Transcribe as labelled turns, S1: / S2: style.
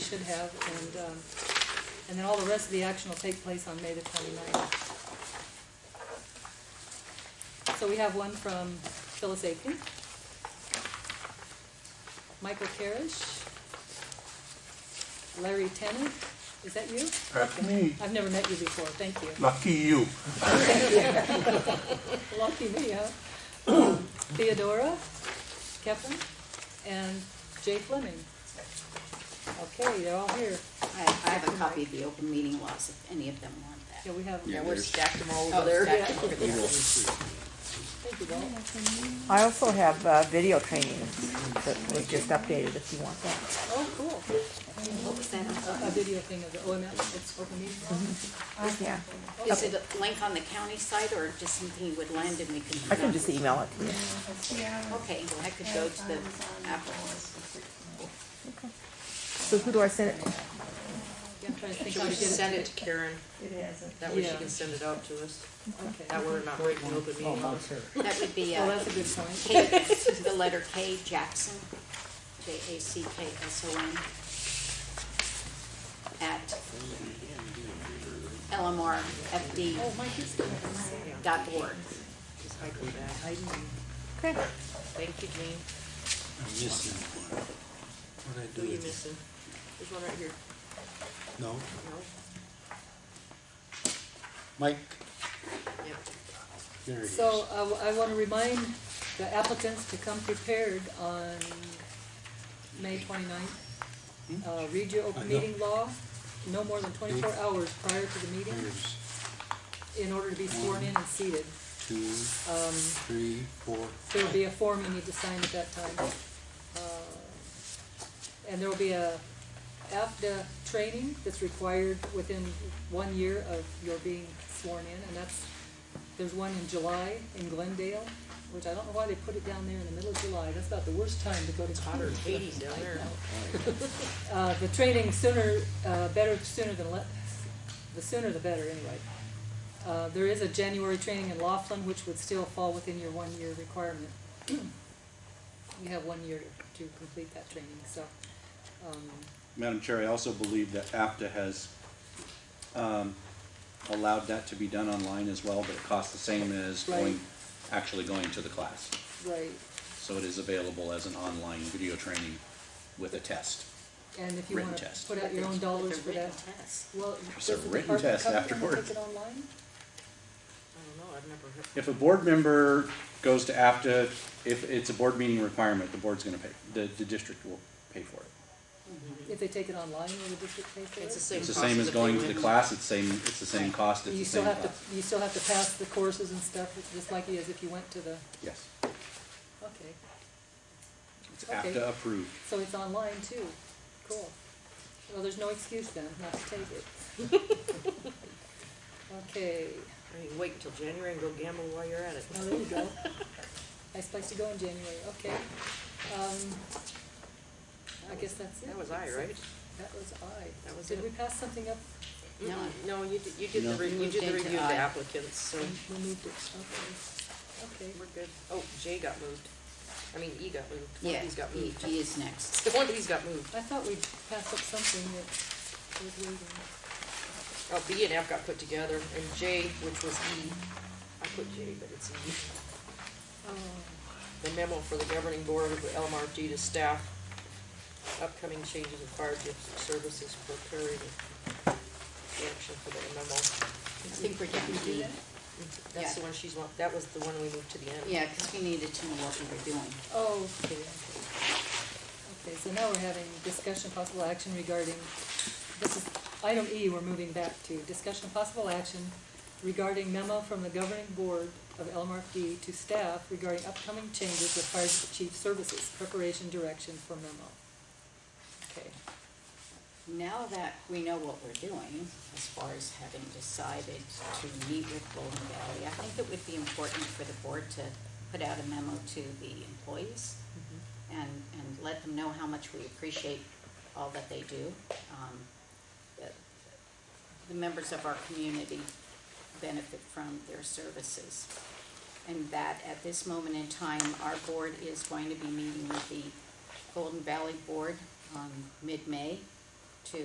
S1: should have, and, um, and then all the rest of the action will take place on May the twenty-ninth. So we have one from Phyllis Aiken. Michael Carish. Larry Tennant, is that you?
S2: That's me.
S1: I've never met you before, thank you.
S2: Lucky you.
S1: Lucky me, huh? Um, Theodora Kevin, and Jay Fleming. Okay, they're all here.
S3: I, I have a copy of the open meeting laws if any of them want
S1: Yeah,
S3: that.
S1: we have,
S4: Yeah,
S1: them.
S4: we're
S5: there's-
S4: stacked them all
S3: Oh,
S4: over there.
S3: stacked
S4: Yeah.
S1: thank you, Walt.
S6: I also have uh, video training that was just updated if you want that.
S1: Oh, cool.
S3: What was that?
S1: A a video thing of the OML, it's open meeting law.
S6: Yeah,
S3: Is it a link on the county site or just something you would land and we can?
S6: I can just email it to you.
S3: Okay, well, I could go to the Apple.
S6: So who do I send it to?
S1: Yeah, I'm trying to think
S4: Should
S1: how
S4: we
S1: to get
S4: send
S1: it. Mm-hmm.
S4: it to Karen? That way she
S1: Yeah.
S4: can send it out to us. That
S1: Okay,
S4: way we're not breaking open meeting laws.
S3: That would be,
S1: well,
S3: uh,
S1: that's a good point.
S3: K, the letter K, Jackson, J A C K S O N, at
S1: Oh,
S3: lmrfd
S1: Mike, it's good.
S3: dot org.
S4: Just hike them back.
S1: I didn't-
S6: Okay.
S4: Thank you, Jean.
S5: I'm missing one. What I do
S4: Who you
S5: with
S4: missing? There's one right here.
S5: No,
S4: No?
S5: Mike,
S4: Yep.
S5: there he is.
S1: So uh, I want to remind the applicants to come prepared on May 29th.
S4: Hmm?
S1: Uh, Read your
S5: I
S1: open
S5: know.
S1: meeting law no more than 24 hours prior to the meeting
S4: Hmm.
S5: There's
S1: in order to be sworn in and seated.
S5: two, three, four.
S1: There'll be a form you need to sign at that time. Uh, And there'll be a AFDA training that's required within one year of your being sworn in, and that's, there's one in July in Glendale, which I don't know why they put it down there in the middle of July, that's about the worst time to go to.
S4: Hotter than Hades down there.
S1: Uh, the training sooner, uh, better sooner than le- the sooner the better, anyway. Uh, there is a January training in Laughlin, which would still fall within your one-year requirement. You have one year to complete that training, so, um,
S7: Madam Chair, I also believe that APTA has um, allowed that to be done online as well, but it costs the same as
S1: Right.
S7: going, actually going to the class.
S1: right,
S7: So it is available as an online video training with a test.
S1: and if you
S7: Written
S1: wanna
S7: test.
S1: put out your own dollars for that. Well,
S7: There's a
S1: does the
S7: written
S1: department
S7: test
S1: cover them and
S7: afterward.
S1: take it online?
S4: I don't know, I've never heard.
S7: If a board member goes to APTA, if it's a board meeting requirement, the board's gonna pay, the, the district will pay for it.
S1: If they take it online, will the district pay for it?
S4: It's the same
S7: It's the
S4: cost
S7: same as
S4: that
S7: going
S4: they
S7: to the
S4: went-
S7: class, it's same, it's the same cost, it's
S1: You
S7: the
S1: still
S7: same
S1: have to,
S7: class.
S1: you still have to pass the courses and stuff, it's just like it is if you went to the,
S7: Yes,
S1: okay.
S7: it's
S1: Okay.
S7: APTA approved.
S1: So it's online too. Cool. Well, there's no excuse then not to take it. Okay,
S4: I mean, wait until January and go gamble while you're at it.
S1: well, Oh, there you go. Nice place to go in January, okay. Um, I guess that's it.
S4: That was I, right?
S1: That was I.
S4: That was
S1: Did
S4: it.
S1: we pass something up?
S3: No.
S4: Mm-mm. No, you did, you did the,
S7: No.
S4: re- you did the
S3: Moved into
S4: review of the
S3: I.
S4: applicants, so
S1: We moved it, okay. Okay,
S4: we're good. Oh, J got moved. I mean, E got moved. One
S3: Yeah,
S4: of these got
S3: he,
S4: moved.
S3: he is next.
S4: One of these got moved.
S1: I thought we passed up something that was waiting.
S4: Oh, B and F got put together, and J, which was E, I put J, but it's E.
S1: Oh,
S4: The memo for the governing board of the LMRFD to staff, upcoming changes in fire district services, preparing the action for the memo.
S3: I think we're down
S1: did
S3: to
S1: we do
S3: D.
S1: that?
S4: That's the
S3: Yeah.
S4: one she's want, that was the one we moved to the end.
S3: Yeah, because we needed to know what we were doing.
S1: Oh, okay, okay. Okay, so now we're having discussion of possible action regarding, this is, item E, we're moving back to, discussion of possible action regarding memo from the governing board of LMRFD to staff regarding upcoming changes with fire chief services, preparation direction for memo. Okay,
S3: Now that we know what we're doing, as far as having decided to meet with Golden Valley, I think it would be important for the board to put out a memo to the employees and, and let them know how much we appreciate all that they do. Um, that The members of our community benefit from their services. And that at this moment in time, our board is going to be meeting with the Golden Valley Board on mid-May